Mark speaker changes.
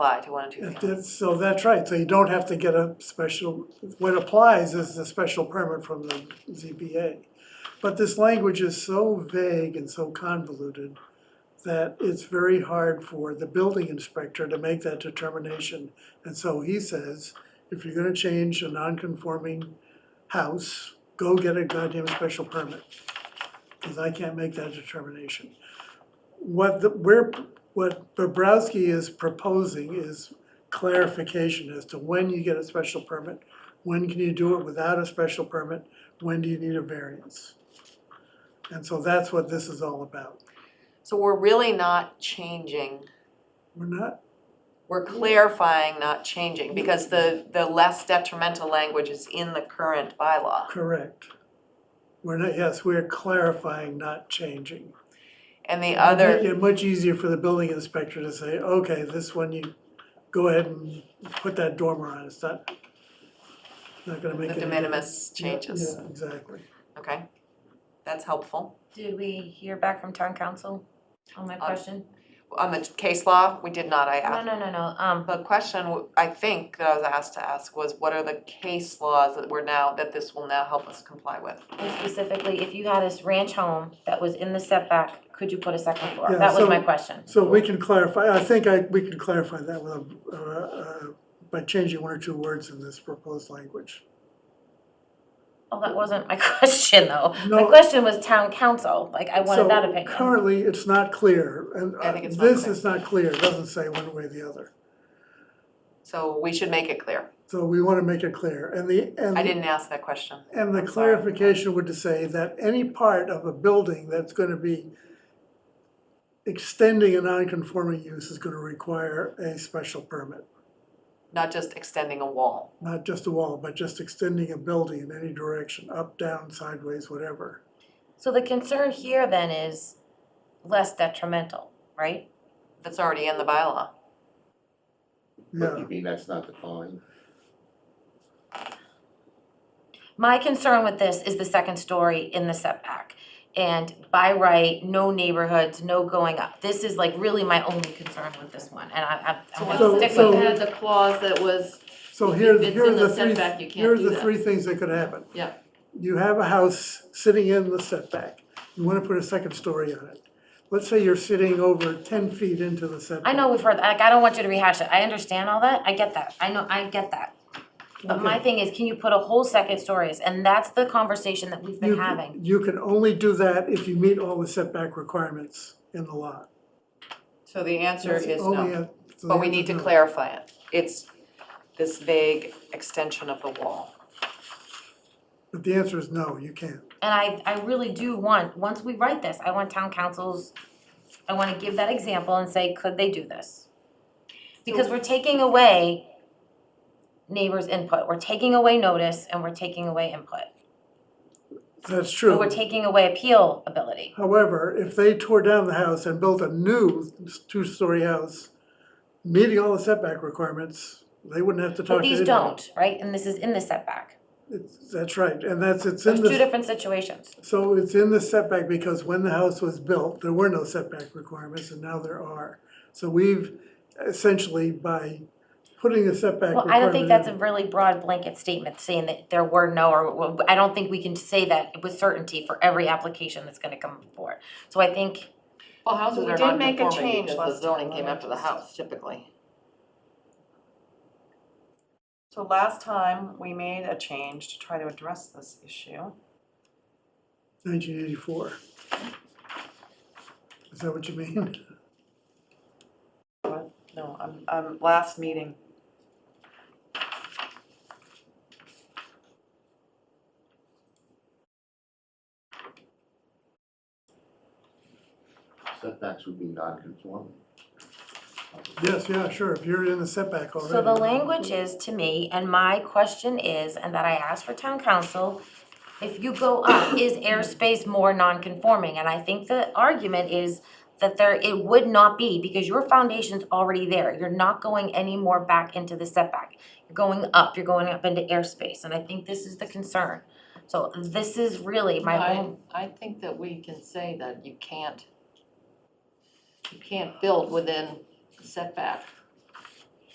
Speaker 1: apply to one and two
Speaker 2: That-
Speaker 1: families.
Speaker 2: that's- So that's right, so you don't have to get a special, what applies is the special permit from the ZBA. But this language is so vague and so convoluted that it's very hard for the building inspector to make that determination. And so he says, if you're gonna change a non-conforming house, go get a goddamn special permit. Cause I can't make that determination. What the, we're, what Bobrowski is proposing is clarification as to when you get a special permit, when can you do it without a special permit, when do you need a variance? And so that's what this is all about.
Speaker 1: So we're really not changing,
Speaker 2: We're not,
Speaker 1: we're clarifying, not changing, because the, the less detrimental language is in the current bylaw.
Speaker 2: correct. We're not, yes, we're clarifying, not changing.
Speaker 1: And the other,
Speaker 2: It's much easier for the building inspector to say, okay, this one you, go ahead and put that dormer on, it's not, not gonna make
Speaker 1: the de
Speaker 2: any difference.
Speaker 1: minimis changes,
Speaker 2: Yeah, exactly.
Speaker 1: okay? That's helpful.
Speaker 3: Did we hear back from town council on my
Speaker 1: Uh,
Speaker 3: question?
Speaker 1: On the case law, we did not, I asked.
Speaker 3: No, no, no, no, um,
Speaker 1: The question w- I think that I was asked to ask was what are the case laws that we're now, that this will now help us comply with?
Speaker 3: and specifically, if you had this ranch home that was in the setback, could you put a second floor?
Speaker 2: Yeah,
Speaker 3: That was
Speaker 2: so-
Speaker 3: my question.
Speaker 2: So we can clarify, I think I, we can clarify that with, a- uh, uh, by changing one or two words in this proposed language.
Speaker 3: Well, that wasn't my question, though. My
Speaker 2: No.
Speaker 3: question was town council, like, I
Speaker 2: So
Speaker 3: wanted that opinion.
Speaker 2: Currently, it's not clear, and
Speaker 1: I
Speaker 2: uh,
Speaker 1: think it's not
Speaker 2: this
Speaker 1: clear.
Speaker 2: is not clear, it doesn't say one way or the other.
Speaker 1: So we should make it clear.
Speaker 2: So we wanna make it clear, and the, and.
Speaker 1: I didn't ask that question.
Speaker 2: And the
Speaker 1: I'm sorry.
Speaker 2: clarification would to say that any part of a building that's gonna be extending a non-conforming use is gonna require a special permit.
Speaker 1: Not just extending a wall.
Speaker 2: Not just a wall, but just extending a building in any direction, up, down, sideways, whatever.
Speaker 3: So the concern here then is less detrimental, right?
Speaker 1: That's already in the bylaw.
Speaker 2: Yeah,
Speaker 4: You mean that's not defined?
Speaker 3: My concern with this is the second story in the setback. And by right, no neighborhoods, no going up. This is like really my only concern with this one, and I, I- I'm
Speaker 2: So-
Speaker 3: gonna stick
Speaker 5: Stick
Speaker 2: so-
Speaker 5: with
Speaker 3: with it.
Speaker 5: had the clause that was,
Speaker 2: so
Speaker 5: If
Speaker 2: here,
Speaker 5: it's
Speaker 2: here are
Speaker 5: in the
Speaker 2: the three,
Speaker 5: setback, you can't
Speaker 2: here are
Speaker 5: do
Speaker 2: the
Speaker 5: that.
Speaker 2: three things that could happen.
Speaker 5: Yeah.
Speaker 2: You have a house sitting in the setback, you wanna put a second story on it. Let's say you're sitting over ten feet into the setback.
Speaker 3: I know we've heard, like, I don't want you to rehash it. I understand all that. I get that. I know, I get that. But my
Speaker 2: Okay.
Speaker 3: thing is, can you put a whole second stories? And that's the conversation that we've
Speaker 2: You
Speaker 3: been
Speaker 2: c-
Speaker 3: having.
Speaker 2: You can only do that if you meet all the setback requirements in the lot.
Speaker 1: So the answer
Speaker 2: That's
Speaker 1: is
Speaker 2: only
Speaker 1: no.
Speaker 2: a- so
Speaker 1: But
Speaker 2: the
Speaker 1: we
Speaker 2: answer
Speaker 1: need to
Speaker 2: is no.
Speaker 1: clarify it. It's this vague extension of the wall.
Speaker 2: But the answer is no, you can't.
Speaker 3: And I, I really do want, once we write this, I want town councils, I wanna give that example and say, could they do this? Because we're taking away neighbors' input, we're taking away notice and we're taking away input.
Speaker 2: That's
Speaker 3: But
Speaker 2: true.
Speaker 3: we're taking away appeal ability.
Speaker 2: However, if they tore down the house and built a new two-story house, meeting all the setback requirements, they wouldn't have to talk
Speaker 3: But
Speaker 2: to
Speaker 3: these
Speaker 2: anyone.
Speaker 3: don't, right? And this is in the setback.
Speaker 2: It's- That's right, and that's, it's
Speaker 3: There's
Speaker 2: in
Speaker 3: two
Speaker 2: the,
Speaker 3: different situations.
Speaker 2: so it's in the setback because when the house was built, there were no setback requirements, and now there are. So we've essentially, by putting the setback
Speaker 3: Well,
Speaker 2: requirement.
Speaker 3: I don't think that's
Speaker 2: in-
Speaker 3: a really broad blanket statement saying that there were no, or, well, I don't think we can say that with certainty for every application that's gonna come forward. So I think
Speaker 5: well,
Speaker 1: So
Speaker 5: houses
Speaker 1: Oh, we
Speaker 5: are
Speaker 1: did make a
Speaker 5: non-conforming
Speaker 1: change
Speaker 5: because
Speaker 1: last
Speaker 5: the zoning
Speaker 1: time,
Speaker 5: came
Speaker 1: right?
Speaker 5: after the house typically.
Speaker 1: So last time, we made a change to try to address this issue.
Speaker 2: 1984. Is that what you mean?
Speaker 1: What? No, I'm, I'm, last meeting.
Speaker 4: Setbacks would be non-conforming.
Speaker 2: Yes, yeah, sure, if you're in the setback already.
Speaker 3: So the language is to me, and my question is, and that I asked for town council, if you go up, is airspace more non-conforming? And I think the argument is that there, it would not be, because your foundation's already there. You're not going any more back into the setback. You're going up, you're going up into airspace, and I think this is the concern. So this is really my
Speaker 5: I,
Speaker 3: own,
Speaker 5: I think that we can say that you can't, you can't build within setback